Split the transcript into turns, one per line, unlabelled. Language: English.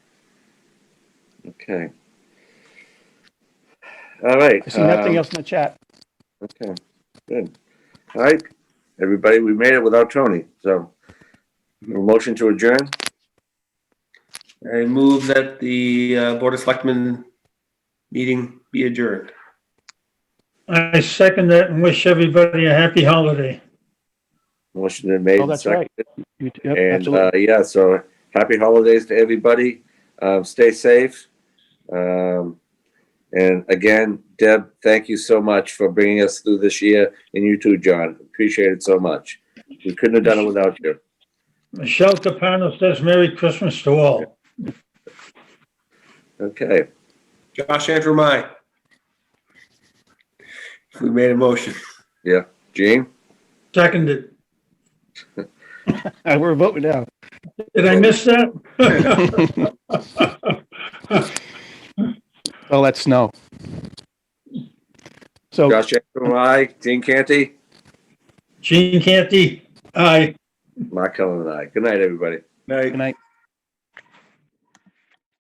Okay. All right.
I see nothing
um,
else in the chat.
Okay, good. All right, everybody, we made it without Tony, so. a Motion to adjourn?
I move that the uh, Board of Selectmen meeting be adjourned.
I second that and wish everybody a happy holiday.
Motion been made.
Oh, that's right.
seconded.
You- yep,
And,
absolutely.
uh, yeah, so happy holidays to everybody. Uh, stay safe. Um, and again, Deb, thank you so much for bringing us through this year and you too, John. Appreciate it so much. We couldn't have done it without you.
Michelle Capano says Merry Christmas to all.
Okay,
Josh Andrew, my. We made a motion.
Gene?
Seconded.
uh,
Uh, We're voting now.
Did I miss that?
Well, that's snow. So,
Josh, I, Gene Canty,
Gene Canty, aye.
Mark Cullen and I. Good night, everybody.
Night.
good night.